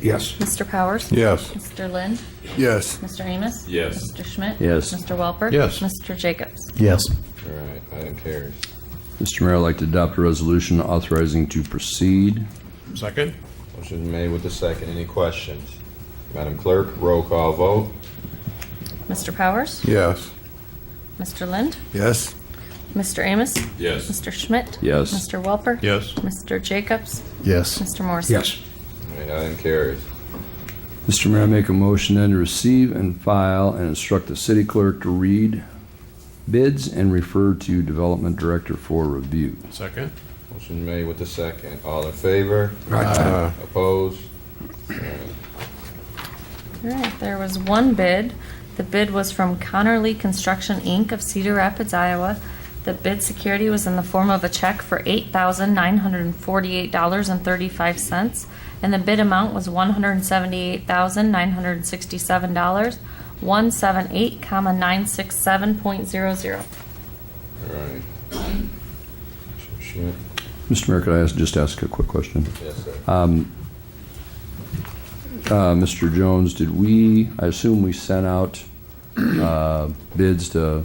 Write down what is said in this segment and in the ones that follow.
Yes. Mr. Powers? Yes. Mr. Lynn? Yes. Mr. Amos? Yes. Mr. Schmidt? Yes. Mr. Welper? Yes. Mr. Jacobs? Yes. All right, item carries. Mr. Mayor, I'd like to adopt a resolution authorizing to proceed. Second? Motion made with the second. Any questions? Madam Clerk, roll call vote. Mr. Powers? Yes. Mr. Lind? Yes. Mr. Amos? Yes. Mr. Schmidt? Yes. Mr. Welper? Yes. Mr. Jacobs? Yes. Mr. Morrissey? Yes. All right, item carries. Mr. Mayor, I make a motion then to receive and file and instruct the city clerk to read bids and refer to development director for review. Second? Motion made with the second. All in favor? Right. Opposed? All right, there was one bid. The bid was from Connor Lee Construction, Inc. of Cedar Rapids, Iowa. The bid security was in the form of a check for $8,948.35, and the bid amount was $178,967, 178, comma, 967.00. All right. Mr. Schmidt? Mr. Mayor, could I ask, just ask a quick question? Yes, sir. Uh, Mr. Jones, did we, I assume we sent out uh, bids to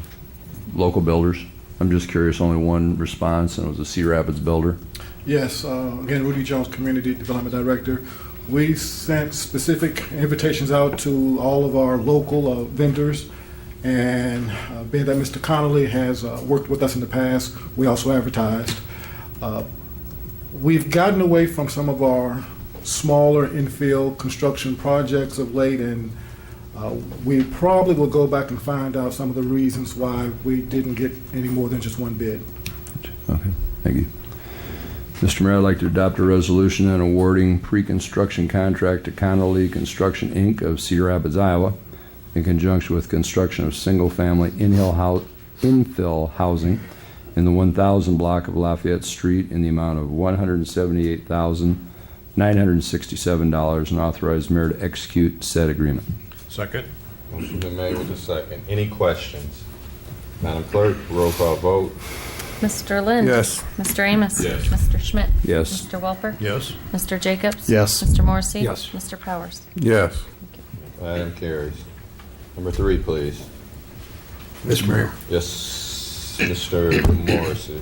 local builders? I'm just curious, only one response, and it was a Sea Rapids builder? Yes, uh, again, Rudy Jones, Community Development Director. We sent specific invitations out to all of our local uh, vendors, and uh, being that Mr. Connolly has uh, worked with us in the past, we also advertised. Uh, We've gotten away from some of our smaller infill construction projects of late, and uh, we probably will go back and find out some of the reasons why we didn't get any more than just one bid. Okay, thank you. Mr. Mayor, I'd like to adopt a resolution and awarding pre-construction contract to Connolly Construction, Inc. of Cedar Rapids, Iowa, in conjunction with construction of single-family infill hou- infill housing in the 1,000 block of Lafayette Street in the amount of $178,967 and authorize mayor to execute said agreement. Second? Motion been made with the second. Any questions? Madam Clerk, roll call vote. Mr. Lind? Yes. Mr. Amos? Yes. Mr. Schmidt? Yes. Mr. Welper? Yes. Mr. Jacobs? Yes. Mr. Morrissey? Yes. Mr. Powers? Yes. Item carries. Number three, please. Mr. Mayor, Yes, Mr. Morrissey.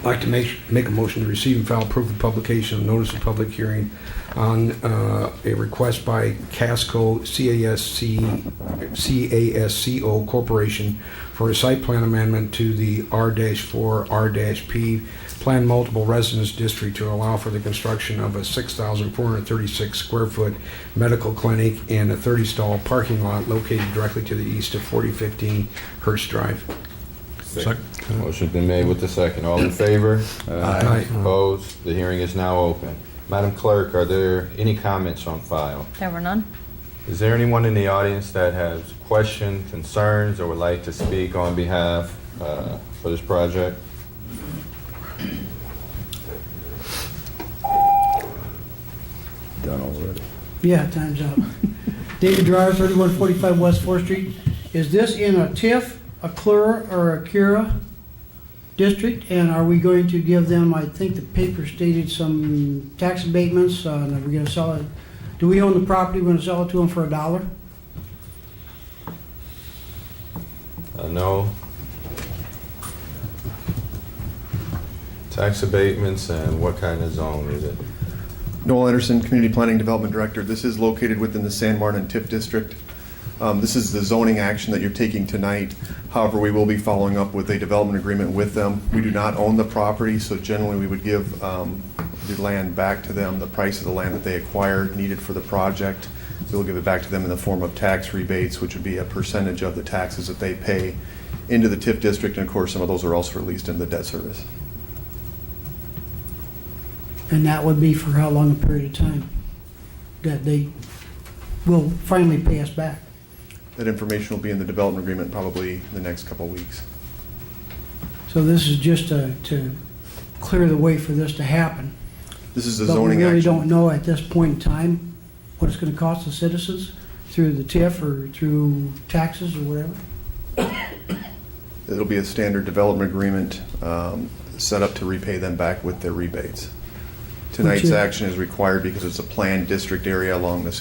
I'd like to make, make a motion to receive and file proof of publication of notice of public hearing on uh, a request by Casco, C-A-S-C, C-A-S-C-O Corporation for a site plan amendment to the R-4, R-P Plan Multiple Residence District to allow for the construction of a 6,436 square foot medical clinic and a 30-stall parking lot located directly to the east of 4015 Hurst Drive. Motion been made with the second. All in favor? Aye. Opposed? The hearing is now open. Madam Clerk, are there any comments on file? There were none. Is there anyone in the audience that has questions, concerns, or would like to speak on behalf uh, for this project? Done already. Yeah, time's up. David Drive, thirty-one forty-five West Fourth Street. Is this in a TIF, a CLURA, or a CURA district? And are we going to give them, I think the paper stated some tax abatements, uh, and are we gonna sell it? Do we own the property, we're gonna sell it to them for a dollar? Uh, No? Tax abatements and what kind of zone is it? Noel Anderson, Community Planning Development Director. This is located within the San Martin TIF District. Um, This is the zoning action that you're taking tonight. However, we will be following up with a development agreement with them. We do not own the property, so generally, we would give um, the land back to them, the price of the land that they acquired needed for the project. We'll give it back to them in the form of tax rebates, which would be a percentage of the taxes that they pay into the TIF district, and of course, some of those are also released into the debt service. And that would be for how long a period of time that they will finally pay us back? That information will be in the development agreement probably in the next couple of weeks. So this is just to, to clear the way for this to happen. This is a But we zoning really action. don't know at this point in time what it's gonna cost the citizens through the TIF or through taxes or whatever. It'll be a standard development agreement um, set up to repay them back with their rebates. Tonight's is- action is required because it's a planned district area along the San